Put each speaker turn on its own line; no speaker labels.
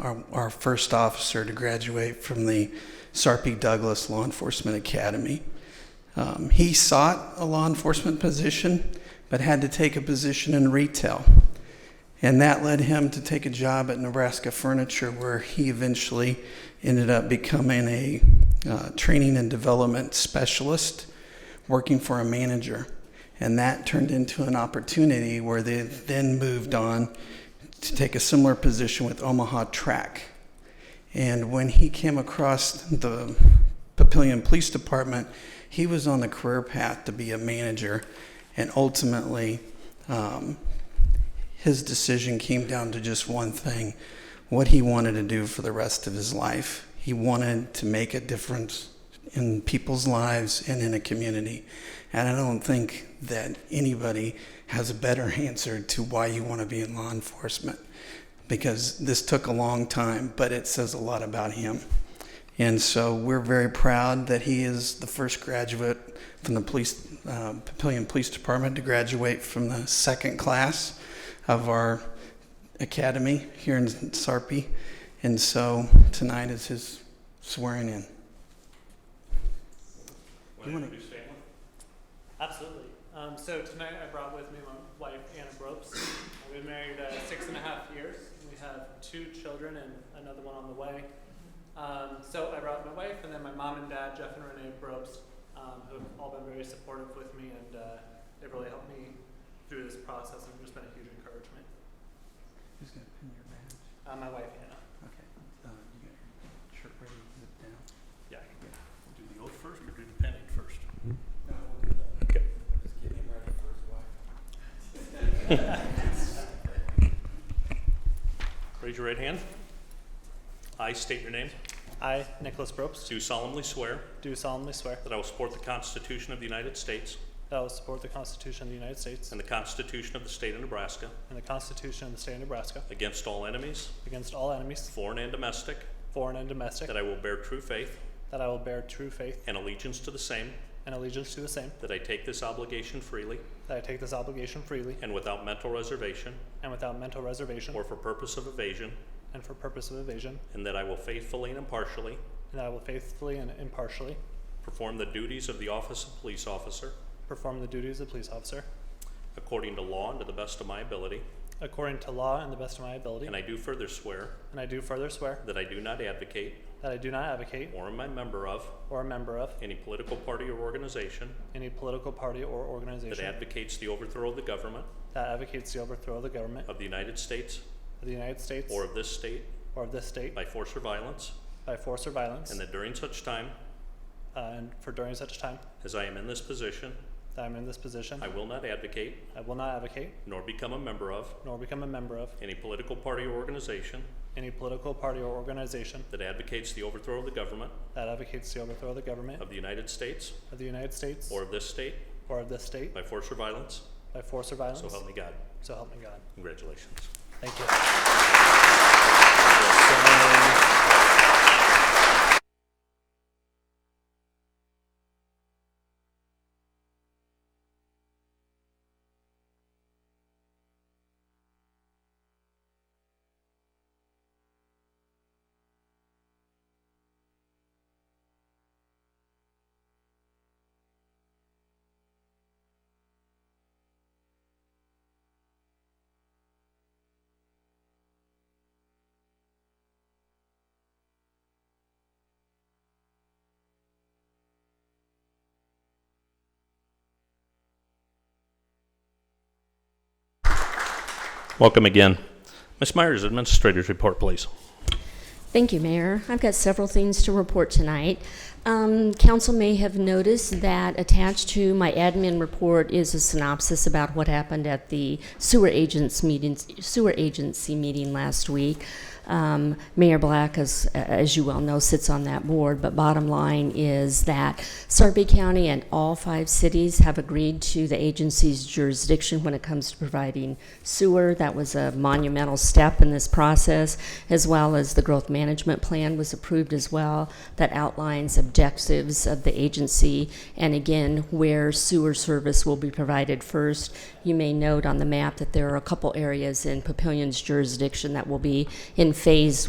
our, our first officer to graduate from the Sarpy Douglas Law Enforcement Academy. Um, he sought a law enforcement position, but had to take a position in retail. And that led him to take a job at Nebraska Furniture, where he eventually ended up becoming a uh, training and development specialist, working for a manager. And that turned into an opportunity where they then moved on to take a similar position with Omaha Track. And when he came across the Papillion Police Department, he was on the career path to be a manager. And ultimately, um, his decision came down to just one thing what he wanted to do for the rest of his life. He wanted to make a difference in people's lives and in a community. And I don't think that anybody has a better answer to why you want to be in law enforcement because this took a long time, but it says a lot about him. And so we're very proud that he is the first graduate from the police, uh, Papillion Police Department to graduate from the second class of our academy here in Sarpy. And so tonight is his swearing in.
Would you stand?
Absolutely. Um, so tonight I brought with me my wife Anna Bropes. Uh, We've been married uh, six and a half years. We have two children and another one on the way. Um, so I brought my wife and then my mom and dad, Jeff and Renee Bropes, um, who have all been very supportive with me and uh, they've really helped me through this process and just been a huge encouragement.
Who's going to pin your badge?
Uh, my wife Anna.
Okay. Uh, you got your shirt ready to zip down?
Yeah. Do the oath first or do the pending first?
No,
Okay.
Mm-hmm. just get him ready for his wife.
Raise your right hand. I state your name.
I, Nicholas Bropes,
Do solemnly swear
do solemnly swear
that I will support the Constitution of the United States
that I will support the Constitution of the United States
and the Constitution of the State of Nebraska
and the Constitution of the State of Nebraska
against all enemies,
against all enemies,
foreign and domestic,
foreign and domestic,
that I will bear true faith
that I will bear true faith
and allegiance to the same,
and allegiance to the same,
that I take this obligation freely
that I take this obligation freely
and without mental reservation
and without mental reservation
or for purpose of evasion,
and for purpose of evasion,
and that I will faithfully and impartially
and that I will faithfully and impartially
perform the duties of the office of police officer
perform the duties of police officer
according to law and to the best of my ability.
according to law and the best of my ability.
And I do further swear
And I do further swear
that I do not advocate
that I do not advocate
or am a member of
or a member of
any political party or organization
any political party or
that
organization
advocates the overthrow of the government
that advocates the overthrow of the government
of the United States
of the United States
or of this state
or of this state
by force or violence,
by force or violence,
and that during such time
uh, and for during such time
as I am in this position,
that I'm in this position,
I will not advocate
I will not advocate
nor become a member of
nor become a member of
any political party or organization
any political party or organization
that advocates the overthrow of the government
that advocates the overthrow of the government
of the United States
of the United States
or of this state
or of this state
by force or violence.
by force or violence.
So help me God.
So help me God.
Congratulations.
Thank you.
Welcome again. Ms. Myers, Administrator's Report, please.
Thank you, Mayor. I've got several things to report tonight. Um, Council may have noticed that attached to my admin report is a synopsis about what happened at the sewer agents meeting, sewer agency meeting last week. Um, Mayor Black, as, as you well know, sits on that board, but bottom line is that Sarpy County and all five cities have agreed to the agency's jurisdiction when it comes to providing sewer. That was a monumental step in this process, as well as the growth management plan was approved as well that outlines objectives of the agency and again where sewer service will be provided first. You may note on the map that there are a couple areas in Papillion's jurisdiction that will be in phase